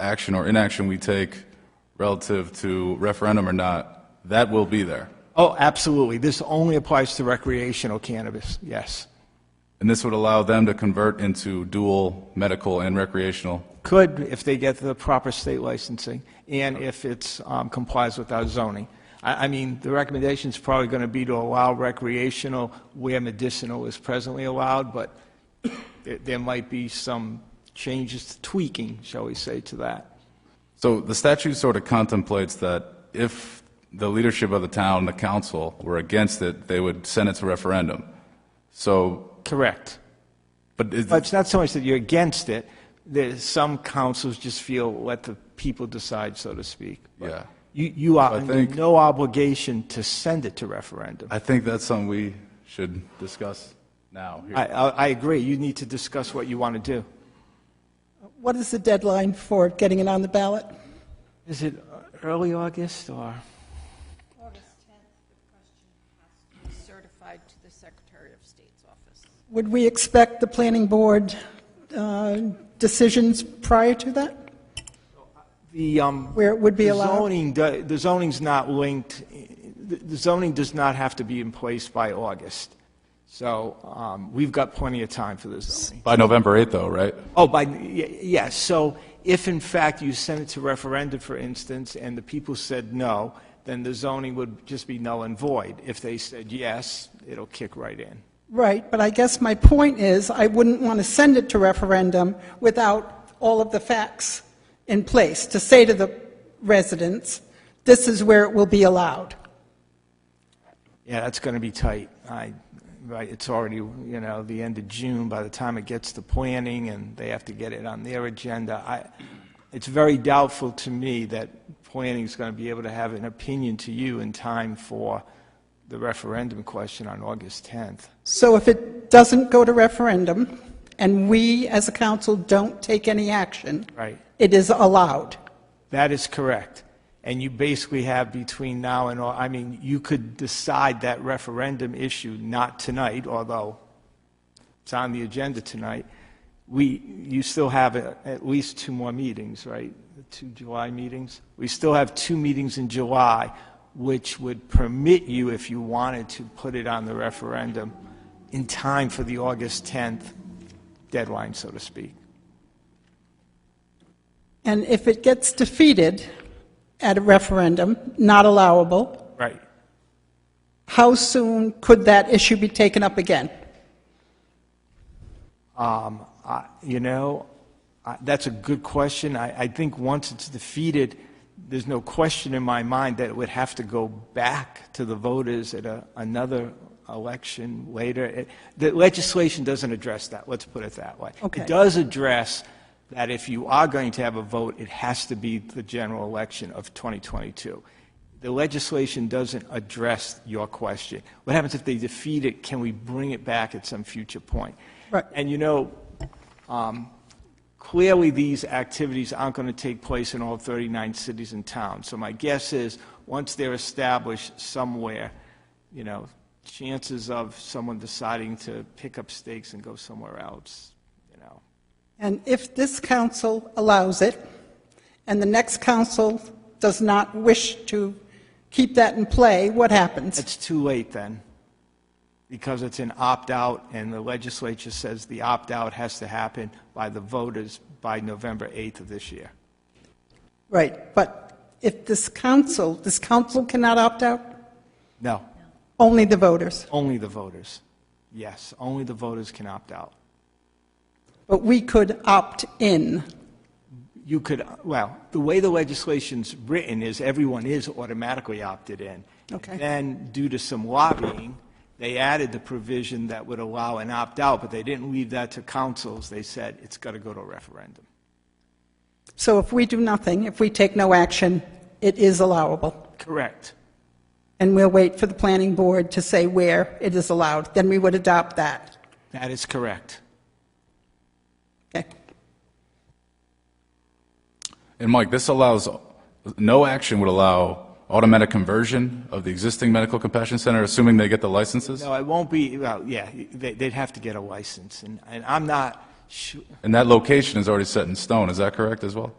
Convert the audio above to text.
action or inaction we take relative to referendum or not, that will be there. Oh, absolutely. This only applies to recreational cannabis, yes. And this would allow them to convert into dual medical and recreational. Could, if they get the proper state licensing, and if it's um, complies with our zoning. I, I mean, the recommendation's probably going to be to allow recreational where medicinal is presently allowed, but there- there might be some changes, tweaking, shall we say, to that. So the statute sort of contemplates that if the leadership of the town, the council, were against it, they would send it to referendum. So, Correct. but is, But it's not so much that you're against it, there's some councils just feel, let the people decide, so to speak. yeah, You, you are I under think- no obligation to send it to referendum. I think that's something we should discuss now. here. I, I, I agree, you need to discuss what you want to do. What is the deadline for getting it on the ballot? Is it early August or? August 10th, the question has to be certified to the Secretary of State's office. Would we expect the planning board uh, decisions prior to that? The, um. Where it would be the allowed? Zoning, do- the zoning's not linked, the the zoning does not have to be in place by August. So, um, we've got plenty of time for the zoning. By November 8th, though, right? Oh, by, y- yes, so if in fact you sent it to referendum, for instance, and the people said no, then the zoning would just be null and void. If they said yes, it'll kick right in. Right, but I guess my point is, I wouldn't want to send it to referendum without all of the facts in place to say to the residents, this is where it will be allowed. Yeah, that's going to be tight. I, right, it's already, you know, the end of June, by the time it gets to planning and they have to get it on their agenda, I, it's very doubtful to me that planning's going to be able to have an opinion to you in time for the referendum question on August 10th. So if it doesn't go to referendum, and we as a council don't take any action, Right. it is allowed. That is correct. And you basically have between now and, Au- I mean, you could decide that referendum issue not tonight, although it's on the agenda tonight. We, you still have a- at least two more meetings, right? The Two July meetings? We still have two meetings in July, which would permit you, if you wanted to, put it on the referendum in time for the August 10th deadline, so to speak. And if it gets defeated at a referendum, not allowable, Right. how soon could that issue be taken up again? Um, I- You know, I- that's a good question. I I think once it's defeated, there's no question in my mind that it would have to go back to the voters at a- another election later. It- The legislation doesn't address that, let's put it that way. Okay. It does address that if you are going to have a vote, it has to be the general election of 2022. The legislation doesn't address your question. What happens if they defeat it? Can we bring it back at some future point? Right. And you know, um, clearly, these activities aren't going to take place in all 39 cities and towns. So my guess is, once they're established somewhere, you know, chances of someone deciding to pick up stakes and go somewhere else, you know. And if this council allows it, and the next council does not wish to keep that in play, what happens? It's too late then, because it's an opt-out, and the legislature says the opt-out has to happen by the voters by November 8th of this year. Right, but if this council, this council cannot opt out, No, only the voters. only the voters. Yes, only the voters can opt out. But we could opt in. you could, well, the way the legislation's written is everyone is automatically opted in. Okay. Then, due to some lobbying, they added the provision that would allow an opt-out, but they didn't leave that to councils. They said it's got to go to a referendum. So if we do nothing, if we take no action, it is allowable. Correct. And we'll wait for the planning board to say where it is allowed, then we would adopt that. That is correct. Okay. And Mike, this allows, no action would allow automatic conversion of the existing medical compassion center, assuming they get the licenses? No, it won't be, well, yeah, they- they'd have to get a license, and and I'm not sure, And that location is already set in stone, is that correct as well?